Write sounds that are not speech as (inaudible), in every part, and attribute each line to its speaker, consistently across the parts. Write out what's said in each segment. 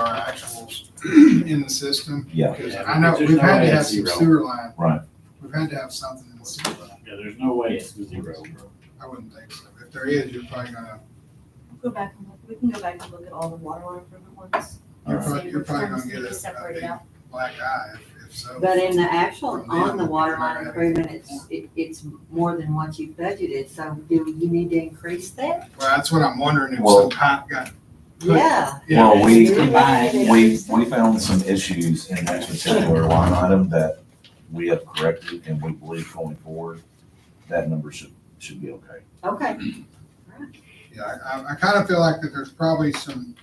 Speaker 1: (clears throat) in the system.
Speaker 2: Yeah.
Speaker 1: Because
Speaker 3: Yeah,
Speaker 1: I know,
Speaker 3: there's
Speaker 1: we've
Speaker 3: no
Speaker 1: had
Speaker 3: way
Speaker 1: to have
Speaker 3: it's
Speaker 1: some
Speaker 3: zero.
Speaker 1: sewer line.
Speaker 2: Right.
Speaker 1: We've had to have something in the sewer line.
Speaker 3: Yeah, there's no way it's zero.
Speaker 1: I wouldn't think so. If there is, you're probably gonna,
Speaker 4: Go back and look, we can go back and look at all the water line improvement ones.
Speaker 2: All
Speaker 1: you're
Speaker 2: right.
Speaker 1: probably, you're probably gonna
Speaker 4: Ones
Speaker 1: get
Speaker 4: that you
Speaker 1: a- a
Speaker 4: separate
Speaker 1: big
Speaker 4: out.
Speaker 1: black eye if- if so.
Speaker 5: But in the actual, on the water line improvement, it's, it, it's more than what you budgeted, so do you need to increase that?
Speaker 1: Well, that's what I'm wondering if
Speaker 2: Well-
Speaker 1: some pipe got.
Speaker 5: Yeah.
Speaker 1: Yeah.
Speaker 2: Well, we,
Speaker 5: You're right.
Speaker 2: we, we found some issues in that particular line item that we have corrected and we believe going forward, that number should, should be okay.
Speaker 5: Okay,
Speaker 1: Yeah, I, I, I kinda feel like that there's probably some,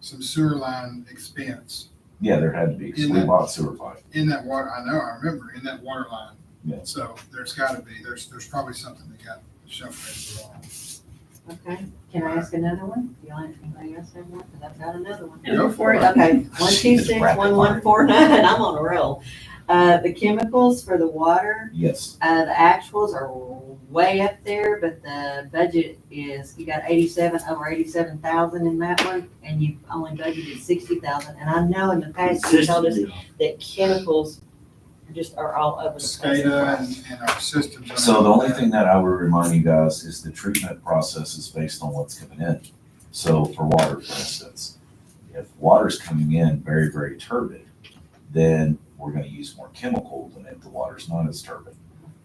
Speaker 1: some sewer line expense
Speaker 2: Yeah, there had to be, 'cause we bought sewer pipe.
Speaker 1: in that water, I know, I remember, in that water line.
Speaker 2: Yeah.
Speaker 1: So there's gotta be, there's, there's probably something that got shoved in the wrong.
Speaker 5: okay. Can I ask another one? Do you want anybody else have one? Because I've got another one.
Speaker 1: Go for it.
Speaker 5: Okay, one two
Speaker 2: She's
Speaker 5: six,
Speaker 2: rapid
Speaker 5: one one four (laughs) nine, I'm on a roll. Uh, the chemicals for the water,
Speaker 2: Yes,
Speaker 5: uh, the actuals are way up there, but the budget is, you got eighty-seven, over eighty-seven thousand in that one, and you've only budgeted sixty thousand, and I know in the past you told us
Speaker 3: Consistent.
Speaker 5: that chemicals just are all over the place.
Speaker 1: SCADA and, and our systems.
Speaker 2: so the only thing that I would remind you guys is the treatment process is based on what's coming in. So for water, for instance, if water's coming in very, very turbid, then we're gonna use more chemical than if the water's not as turbid.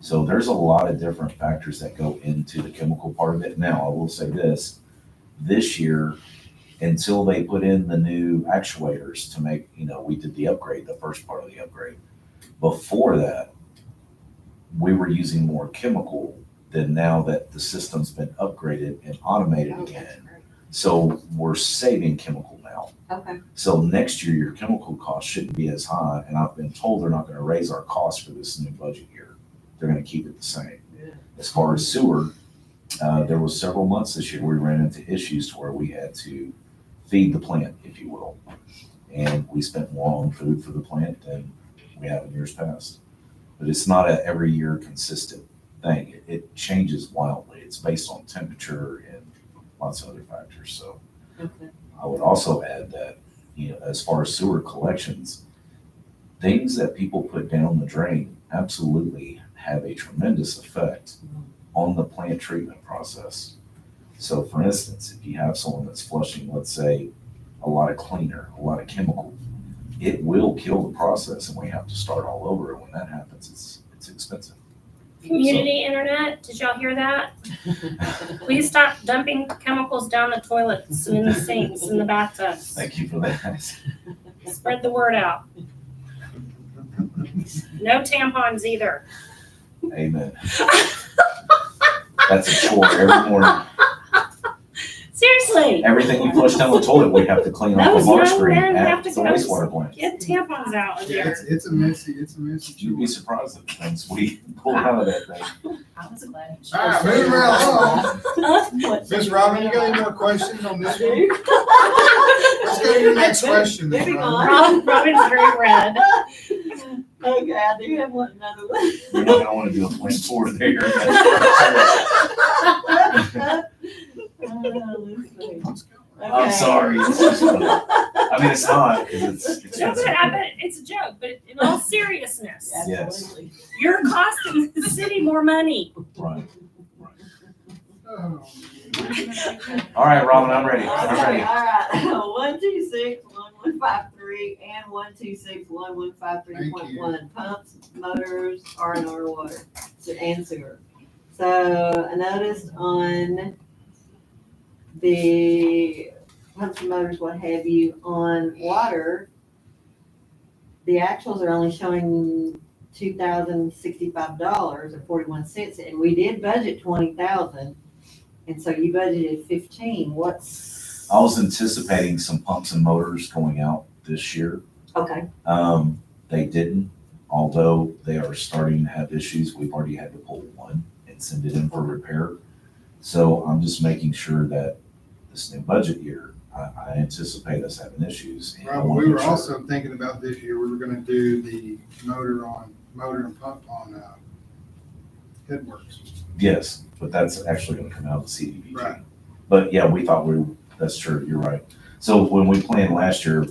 Speaker 2: So there's a lot of different factors that go into the chemical part of it. Now, I will say this, this year, until they put in the new actuators to make, you know, we did the upgrade, the first part of the upgrade. Before that, we were using more chemical than now that the system's been upgraded and automated
Speaker 5: Okay,
Speaker 2: again. So we're saving chemical now.
Speaker 5: Okay,
Speaker 2: So next year, your chemical cost shouldn't be as high, and I've been told they're not gonna raise our cost for this new budget year. They're gonna keep it the same.
Speaker 5: Good.
Speaker 2: As far as sewer, uh, there was several months this year we ran into issues to where we had to feed the plant, if you will. And we spent more on food for the plant than we have in years past. But it's not a every year consistent thing. It, it changes wildly. It's based on temperature and lots of other factors, so.
Speaker 5: okay.
Speaker 2: I would also add that, you know, as far as sewer collections, things that people put down the drain absolutely have a tremendous effect on the plant treatment process. So for instance, if you have someone that's flushing, let's say, a lot of cleaner, a lot of chemical, it will kill the process and we have to start all over. And when that happens, it's, it's expensive.
Speaker 6: Community internet, did y'all hear that? Please stop dumping chemicals down the toilets and in the sinks and the bathtubs.
Speaker 2: Thank you for that. (laughs)
Speaker 6: Spread the word out. No tampons either.
Speaker 2: Amen. That's a chore every morning.
Speaker 6: Seriously,
Speaker 2: Everything we flush down the toilet, we have to clean off
Speaker 6: Those
Speaker 2: the water
Speaker 6: young
Speaker 2: screen
Speaker 6: men
Speaker 2: at
Speaker 6: have
Speaker 2: the
Speaker 6: to go-
Speaker 2: wastewater plant.
Speaker 6: get tampons out of
Speaker 1: Yeah,
Speaker 6: there.
Speaker 1: it's, it's a messy, it's a messy.
Speaker 2: You'd be
Speaker 1: chore.
Speaker 2: surprised at the things we pull
Speaker 6: Ah.
Speaker 2: out of that thing.
Speaker 4: I was glad.
Speaker 1: All right, moving right along.
Speaker 5: What?
Speaker 1: Ms. Robin, you
Speaker 5: (laughs)
Speaker 1: got any more questions on this one?
Speaker 5: do.
Speaker 1: Let's go to your next question. Ms.
Speaker 5: Moving
Speaker 1: Robin.
Speaker 5: on.
Speaker 6: Robin, Robin's very red.
Speaker 5: Okay, I do have one, another one.
Speaker 2: You're not gonna wanna do a plant tour
Speaker 6: (laughs)
Speaker 2: there.
Speaker 5: (laughs) Uh, let's see.
Speaker 1: Let's go.
Speaker 2: I'm
Speaker 5: Okay.
Speaker 2: sorry. It's just funny. I mean, it's not, 'cause it's
Speaker 6: No,
Speaker 2: expensive.
Speaker 6: but I bet it's a joke, but in all seriousness,
Speaker 2: Yes.
Speaker 5: Absolutely. (laughs)
Speaker 6: you're costing the city more money.
Speaker 2: Right.
Speaker 1: Oh,
Speaker 2: All right, Robin, I'm ready.
Speaker 5: Okay,
Speaker 2: I'm ready.
Speaker 5: all right. (laughs) One two six one one five three and one two six one one five three
Speaker 1: Thank
Speaker 5: point
Speaker 1: you.
Speaker 5: one pumps, motors, R and R water and sewer. So I noticed on the pumps and motors, what have you, on water, the actuals are only showing two thousand sixty-five dollars and forty-one cents, and we did budget twenty thousand. And so you budgeted fifteen, what's?
Speaker 2: I was anticipating some pumps and motors going out this year.
Speaker 5: Okay,
Speaker 2: Um, they didn't, although they are starting to have issues. We've already had to pull one and send it in for repair. So I'm just making sure that this new budget year, I, I anticipate us having issues. and I
Speaker 1: Robin,
Speaker 2: wanna
Speaker 1: we
Speaker 2: make
Speaker 1: were
Speaker 2: sure-
Speaker 1: also thinking about this year, we were gonna do the motor on, motor and pump on, uh, Headworks.
Speaker 2: Yes, but that's actually gonna come out of the CDBG.
Speaker 1: Right.
Speaker 2: But yeah, we thought we, that's true, you're right. So when we planned last year,